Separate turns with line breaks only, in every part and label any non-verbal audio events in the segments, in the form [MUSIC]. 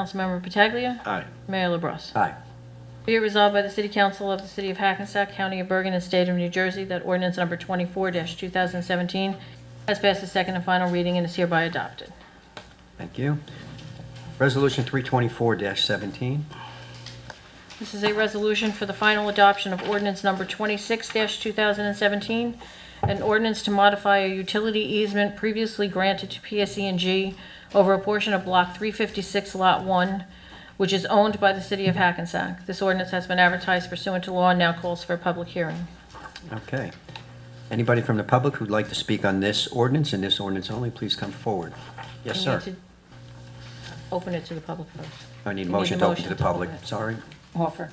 Councilmember Pataglia.
Aye.
Mayor LaBrus.
Aye.
Be it resolved by the City Council of the City of Hackensack, County of Bergen, and State of New Jersey that ordinance number 24-2017 has passed its second and final reading and is hereby adopted.
Thank you. Resolution 324-17.
This is a resolution for the final adoption of ordinance number 26-2017, an ordinance to modify a utility easement previously granted to PSE&G over a portion of Block 356, Lot 1, which is owned by the City of Hackensack. This ordinance has been advertised pursuant to law and now calls for a public hearing.
Okay. Anybody from the public who'd like to speak on this ordinance and this ordinance only, please come forward. Yes,
We
sir.
need to Open it to the public first.
I need a
We
motion to open to the public.
it.
Sorry.
Offer.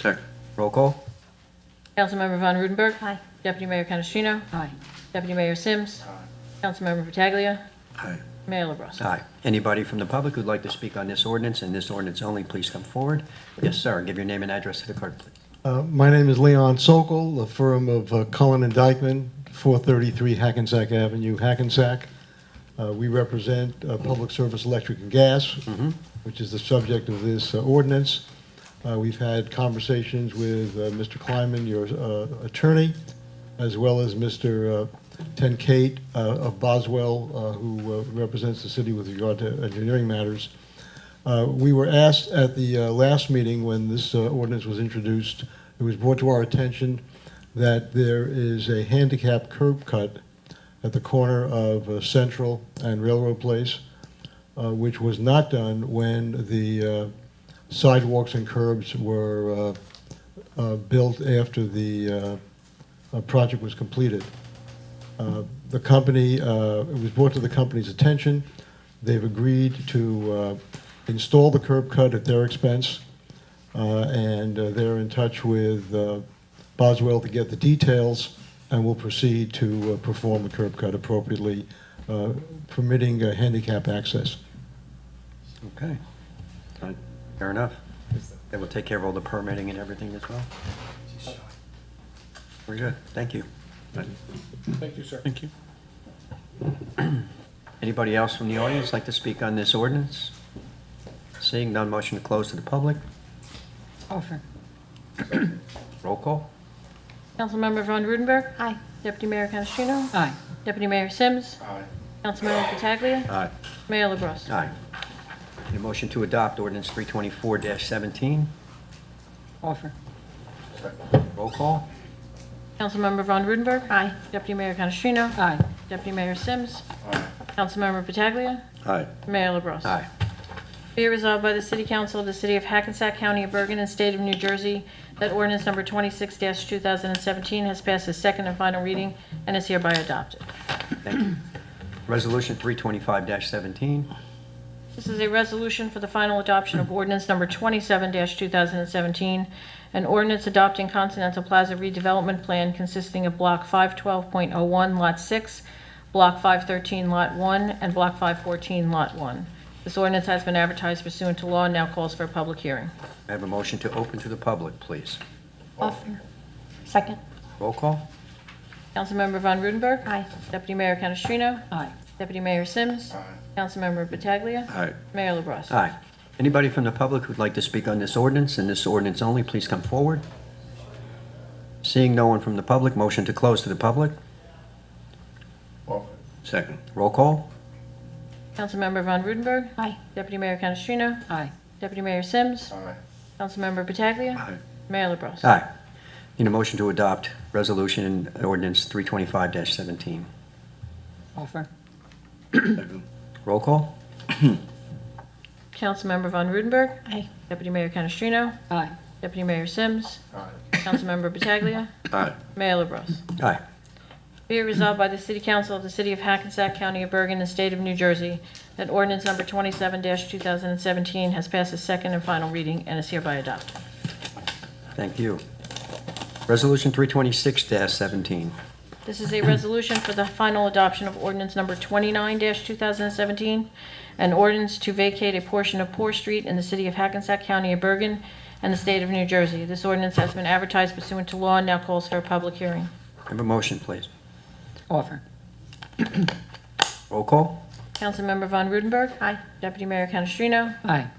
Second.
Roll call?
Councilmember Von Rudenberg.
Aye.
Deputy Mayor Canestrino.
Aye.
Deputy Mayor Sims. Councilmember Pataglia.
Aye.
Mayor LaBrus.
Aye. Anybody from the public who'd like to speak on this ordinance and this ordinance only, please come forward. Yes, sir. Give your name and address to the clerk, please.
Uh, My name is Leon Sokol, the firm of uh, Cullen and Dyckman, 433 Hackensack Avenue, Hackensack. Uh, We represent uh, Public Service Electric and Gas, which is the subject of this uh, ordinance. Uh, We've had conversations with uh, Mr. Kleiman, your uh, attorney, as well as Mr. uh, Ten Kate uh, of Boswell, uh, who uh, represents the city with regard to engineering matters. Uh, We were asked at the uh, last meeting, when this uh, ordinance was introduced, it was brought to our attention that there is a handicap curb cut at the corner of uh, Central and Railroad Place, uh, which was not done when the uh, sidewalks and curbs were uh, uh, built after the uh, uh, project was completed. Uh, The company, uh, it was brought to the company's attention. They've agreed to uh, install the curb cut at their expense, uh, and uh, they're in touch with uh, Boswell to get the details, and will proceed to uh, perform the curb cut appropriately, uh, permitting uh, handicap access.
Okay. Fair enough. That will take care of all the permitting and everything as well. We're good. Thank you.
Thank you, sir. Thank you.
[CLEARS THROAT] Anybody else from the audience like to speak on this ordinance? Seeing none, motion to close to the public.
Offer.
[CLEARS THROAT] Roll call?
Councilmember Von Rudenberg.
Aye.
Deputy Mayor Canestrino.
Aye.
Deputy Mayor Sims.
Aye.
Councilmember Pataglia.
Aye.
Mayor LaBrus.
Aye. Need a motion to adopt ordinance 324-17.
Offer.
Roll call?
Councilmember Von Rudenberg.
Aye.
Deputy Mayor Canestrino.
Aye.
Deputy Mayor Sims. Councilmember Pataglia.
Aye.
Mayor LaBrus.
Aye.
Be it resolved by the City Council of the City of Hackensack County of Bergen and State of New Jersey that ordinance number 26-2017 has passed its second and final reading and is hereby adopted.
Thank you. Resolution 325-17.
This is a resolution for the final adoption of ordinance number 27-2017, an ordinance adopting Continental Plaza redevelopment plan consisting of Block 512.01, Lot 6, Block 513, Lot 1, and Block 514, Lot 1. This ordinance has been advertised pursuant to law and now calls for a public hearing.
May I have a motion to open to the public, please.
Offer. Second.
Roll call?
Councilmember Von Rudenberg.
Aye.
Deputy Mayor Canestrino.
Aye.
Deputy Mayor Sims. Councilmember Pataglia.
Aye.
Mayor LaBrus.
Aye. Anybody from the public who'd like to speak on this ordinance and this ordinance only, please come forward. Seeing no one from the public, motion to close to the public.
Offer.
Second.
Roll call?
Councilmember Von Rudenberg.
Aye.
Deputy Mayor Canestrino.
Aye.
Deputy Mayor Sims.
Aye.
Councilmember Pataglia.
Aye.
Mayor LaBrus.
Aye. Need a motion to adopt Resolution and Ordinance 325-17.
Offer.
Second.
Roll call?
Councilmember Von Rudenberg.
Aye.
Deputy Mayor Canestrino.
Aye.
Deputy Mayor Sims.
Aye.
Councilmember Pataglia.
Aye.
Mayor LaBrus.
Aye.
Be it resolved by the City Council of the City of Hackensack County of Bergen and State of New Jersey that ordinance number 27-2017 has passed its second and final reading and is hereby adopted.
Thank you. Resolution 326-17.
This is a resolution for the final adoption of ordinance number 29-2017, an ordinance to vacate a portion of Poor Street in the city of Hackensack County of Bergen and the state of New Jersey. This ordinance has been advertised pursuant to law and now calls for a public hearing.
Have a motion, please.
Offer.
Roll call?
Councilmember Von Rudenberg. Aye. Deputy Mayor Canestrino.
Aye.